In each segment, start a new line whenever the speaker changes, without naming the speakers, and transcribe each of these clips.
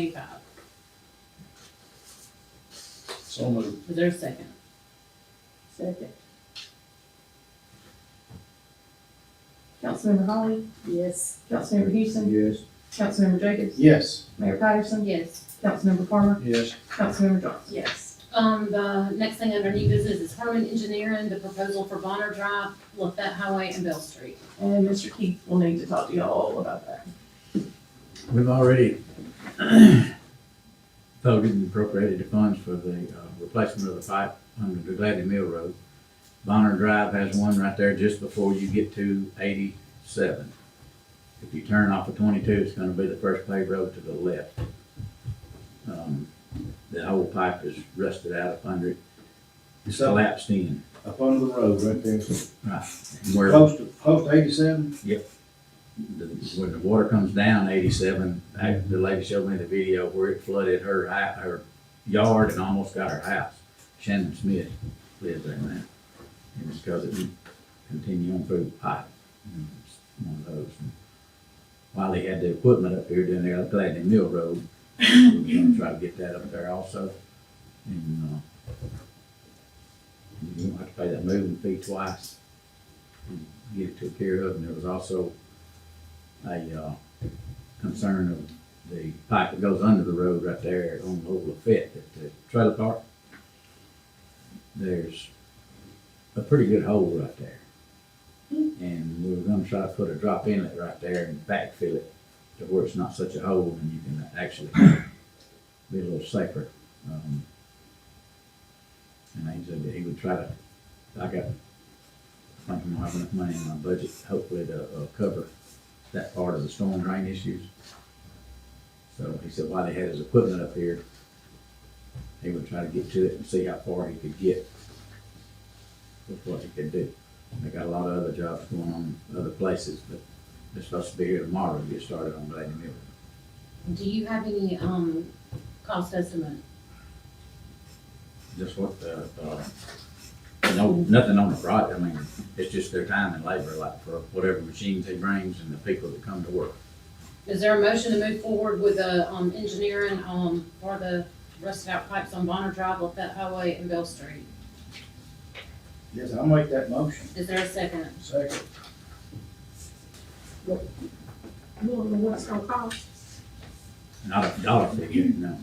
eighty-five.
So moved.
Is there a second?
Second. Councilmember Holly? Yes. Councilmember Houston?
Yes.
Councilmember Jacobs?
Yes.
Mayor Patterson?
Yes.
Councilmember Farmer?
Yes.
Councilmember Johnson?
Yes. Um, the next thing under new business is Harmon Engineering, the proposal for Bonner Drive, Lafette Highway, and Bell Street.
And Mr. Keith will need to talk to y'all all about that.
We've already voted and appropriated the funds for the uh, replacement of the pipe under the Gladys Mill Road. Bonner Drive has one right there just before you get to eighty-seven. If you turn off of twenty-two, it's gonna be the first paved road to the left. Um, The whole pipe is rusted out up under it. It's
So-
collapsed in.
Up under the road, right there.
Where
Post, post eighty-seven?
the, when the water comes down eighty-seven, I- the lady showed me the video where it flooded her, hou- her yard and almost got her house. Shannon Smith lives there now. And it's because it didn't continue on through the pipe. And it's One of those. And While they had the equipment up here, then they're glad in Mill Road. We were gonna try to get that up there also. And, uh, you don't have to pay that moving fee twice. And Get it took care of. And there was also a uh, concern of the pipe that goes under the road right there on Old Lafette at the trailer park. There's a pretty good hole right there. And we were gonna try to put a drop inlet right there and backfill it to where it's not such a hole and you can actually be a little safer. Um, And he said that he would try to, I got, I think I'm gonna have enough money in my budget hopefully to uh, cover that part of the storm drain issues. So he said while they had his equipment up here, he would try to get to it and see how far he could get with what he could do. They got a lot of other jobs going on in other places, but they're supposed to be here tomorrow to get started on Lady Miller.
Do you have any, um, cost estimate?
Just what the, uh, no, nothing on the project, I mean, it's just their time and labor, like for whatever machines he brings and the people that come to work.
Is there a motion to move forward with the, um, engineering, um, for the rusted out pipes on Bonner Drive, Lafette Highway, and Bell Street?
Yes, I'll make that motion.
Is there a second?
Second.
You want to know what it's gonna cost?
Not a dollar figure, no.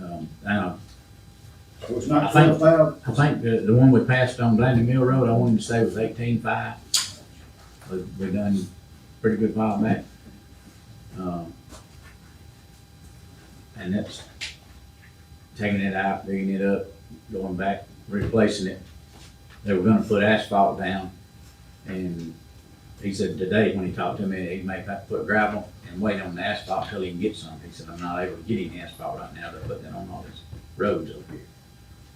Um, and I
So it's not
I think-
twelve thousand?
I think the, the one we passed on Blandon Mill Road, I wanted to say was eighteen-five. We, we done pretty good by on that. Um, And that's taking it out, digging it up, going back, replacing it. They were gonna put asphalt down, and he said today, when he talked to me, he may have to put gravel and wait on the asphalt till he can get some. He said, I'm not able to get any asphalt right now, they're putting it on all these roads over here.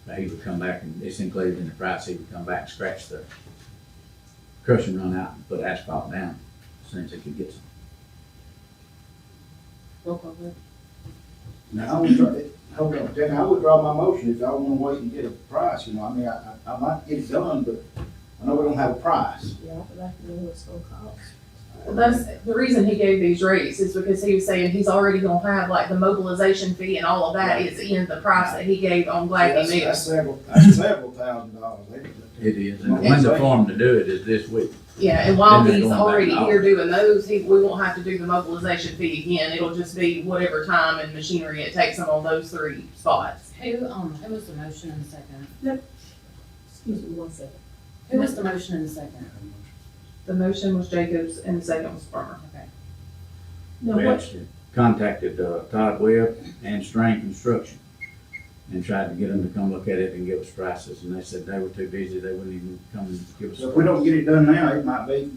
But he would come back and it's included in the price, he would come back, scratch the crush and run out and put asphalt down as soon as he could get some.
Roll call vote.
Now, I would, try- hold on, then I would draw my motion if y'all wanna wait and get a price, you know, I mean, I, I, I might get it done, but I know we don't have a price.
Yeah, but I can know what it's gonna cost. Well, that's, the reason he gave these rates is because he was saying he's already gonna have like the mobilization fee and all of that is in the price that he gave on Gladney
That's-
Mills.
That's several, that's several thousand dollars. They-
It is, and when the form to do it is this week.
Yeah, and while
Then they're
he's
going back
already
out.
here doing those, he, we won't have to do the mobilization fee again, it'll just be whatever time and machinery it takes him on those three spots.
Who, um, who was the motion and the second?
Excuse me one second.
Who was the motion and the second?
The motion was Jacobs and the second was Farmer.
Okay.
Now,
We
what,
actually contacted uh, Todd Webb and Strain Construction and tried to get them to come look at it and give us prices, and they said they were too busy, they wouldn't even come and give us.
So if we don't get it done now, it might be,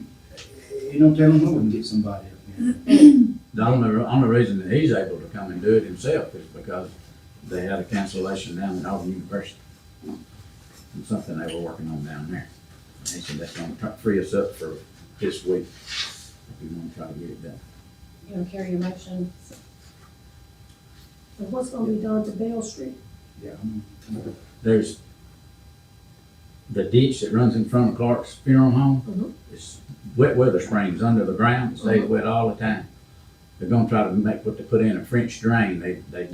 you don't tell them who we can get somebody up here.
The only, only reason that he's able to come and do it himself is because they had a cancellation down at Auburn University. And something they were working on down there. And he said that's gonna try- free us up for this week, if we wanna try to get it done.
You don't carry your motion?
And what's gonna be done to Bell Street?
Yeah, I'm-
There's the ditch that runs in front of Clark's funeral home. It's wet weather springs under the ground, it stays wet all the time. They're gonna try to make, put, to put in a French drain, they, they